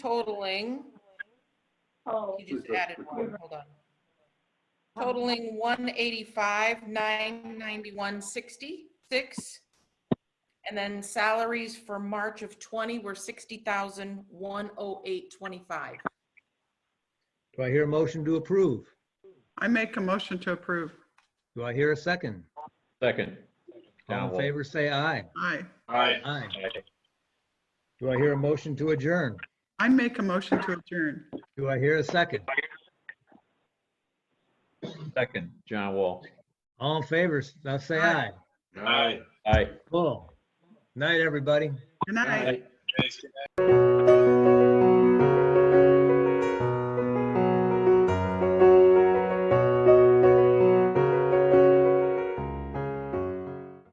totaling, Oh, you just added one, hold on. Totaling one eighty-five, nine ninety-one, sixty-six. And then salaries for March of twenty were sixty thousand, one oh eight, twenty-five. Do I hear a motion to approve? I make a motion to approve. Do I hear a second? Second. John All in Wall. favor, say aye. Aye. Aye. Aye. Do I hear a motion to adjourn? I make a motion to adjourn. Do I hear a second? Second, John Wall. All in favor, now say Aye. aye. Aye. Aye. Cool. Night, everybody. Good night. Thanks.